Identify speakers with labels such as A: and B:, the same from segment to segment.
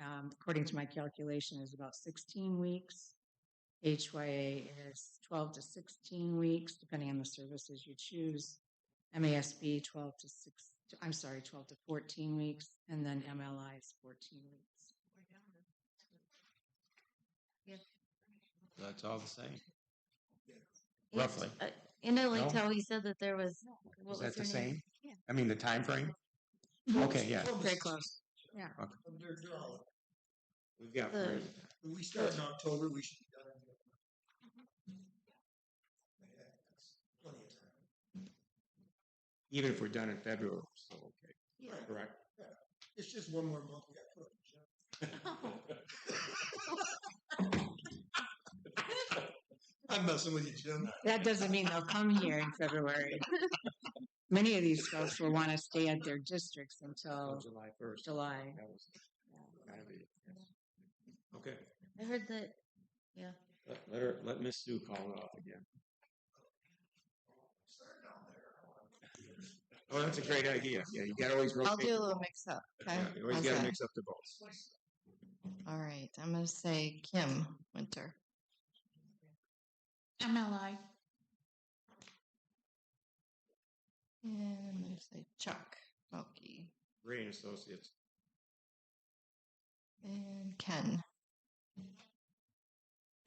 A: um, according to my calculation, is about sixteen weeks. HYA is twelve to sixteen weeks, depending on the services you choose. MASB twelve to six, I'm sorry, twelve to fourteen weeks, and then MLI is fourteen weeks.
B: That's all the same.
C: Yeah,
B: Roughly.
C: uh, In a link
B: No?
C: he said that there was, what was
B: Is that the
C: her name?
B: same? I mean, the time frame. Okay, yeah.
A: Very close.
D: From their dollar.
B: We've got
C: The-
D: When we start in October, we should be done in November. Yeah, that's Plenty of time.
B: even if we're done in February, we're still okay. Correct.
D: It's just one more month we got to put. on the show. I'm messing with you, Jim.
A: That doesn't mean they'll come here in February. Many of these folks will want to stay at their districts until
B: July first.
A: Oh, July.
B: That was gotta be- Okay,
C: I heard that,
B: let, let her, let Miss Sue call it off again. Oh, that's a great idea. Yeah, you gotta always rotate.
E: I'll do a
B: the
E: little
B: ball.
E: mix up. Okay.
B: Yeah, You always
E: How's
B: gotta
E: that?
B: mix up the balls.
E: All right. I'm going to say Kim Winter.
F: MLI.
E: And I'm going to say Chuck Mulkey.
B: Ray and Associates.
E: And Ken.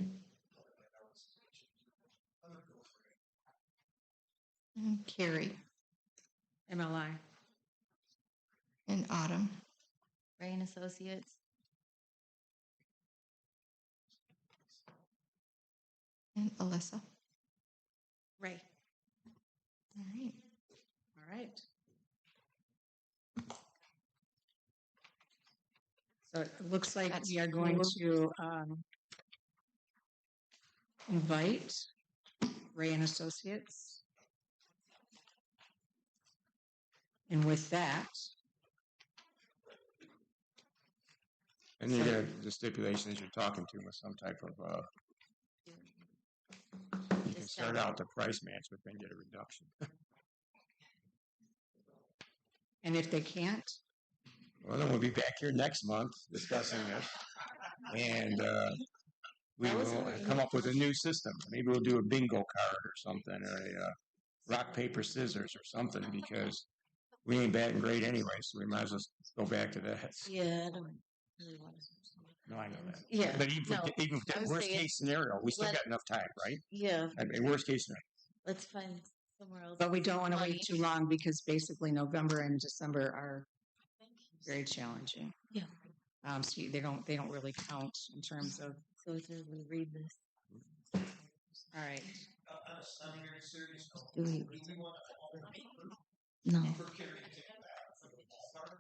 D: I'm gonna go for it.
E: And Carrie.
A: MLI.
E: And Autumn.
C: Ray and Associates.
E: And Alyssa.
F: Ray.
E: All right.
A: All right. So it looks like
E: That's
A: we are going
E: cool.
A: to um, invite Ray and Associates. And with that,
B: And you gotta, the stipulation is you're talking to them with some type of, uh, you can start out the price match, but then get a reduction.
A: and if they can't,
B: Well, then we'll be back here next month discussing this. And uh, we
C: That was
B: will
C: really
B: come up with a new system. Maybe we'll do a bingo card or something, or a uh, rock, paper, scissors or something, because we ain't batting great anyway, so we might as well go back to that.
C: Yeah, I don't really want to.
B: No, I know that.
C: Yeah,
B: But even,
C: no,
B: for even if
C: I
B: that
C: was
B: worst
C: saying-
B: case scenario, we still
C: Let-
B: got enough time, right?
C: yeah,
B: I mean, worst case scenario.
C: let's find somewhere else.
A: but we don't want to wait
C: Money.
A: too long because basically November and December are very challenging.
C: Yeah.
A: Um, so you- they don't they don't really count in terms of.
C: Go through and read this.
A: All right.
D: Uh, I'm, I'm very serious. though.
C: Do we-
D: We want to honor her
C: No.
D: for carrying it back for the ballpark.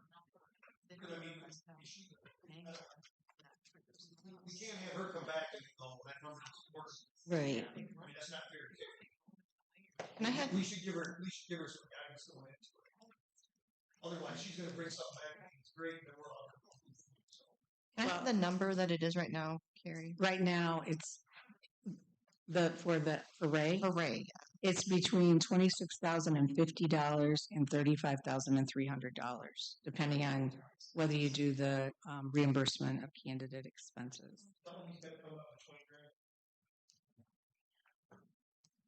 D: Because I mean, she, we can't have her come back and go, that number is worse.
C: Right.
D: I mean, that's not fair. to Carrie.
E: And I had
D: We should give her, we should give her some guidance going into it. Otherwise, she's gonna bring something back, and it's great, and we're all. So,
E: can I have the number that it is right now, Carrie?
A: Right now, it's the for the for Ray.
E: Hooray.
A: It's between twenty six thousand and fifty dollars and thirty five thousand and three hundred dollars, depending on whether you do the um, reimbursement of candidate expenses.
D: Somebody's gotta come up with twenty grand.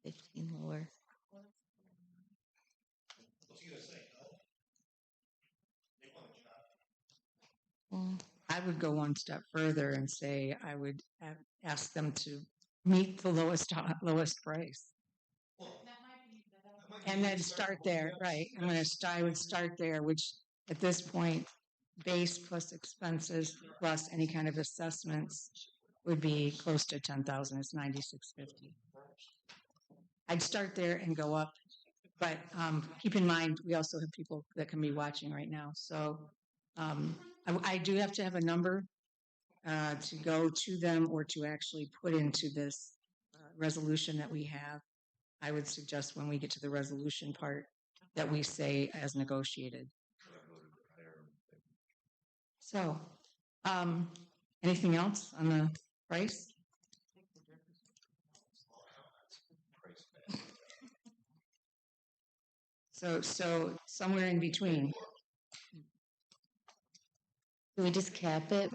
C: Fifteen lower.
D: What's he gonna say? no? They want a job.
C: Well,
A: I would go one step further and say I would a- ask them to meet the lowest lowest price.
D: Well, that might be
A: And then start
D: respectable,
A: there,
D: yes.
A: right? I'm gonna start, I would start there, which at this point, base plus expenses plus any kind of assessments would be close to ten thousand, it's ninety-six fifty. I'd start there and go up, but, um, keep in mind, we also have people that can be watching right now, so, um, I, I do have to have a number uh, to go to them or to actually put into this uh, resolution that we have. I would suggest when we get to the resolution part that we say as negotiated. So, um, anything else on the price? So, so somewhere in between.
C: Can we just cap it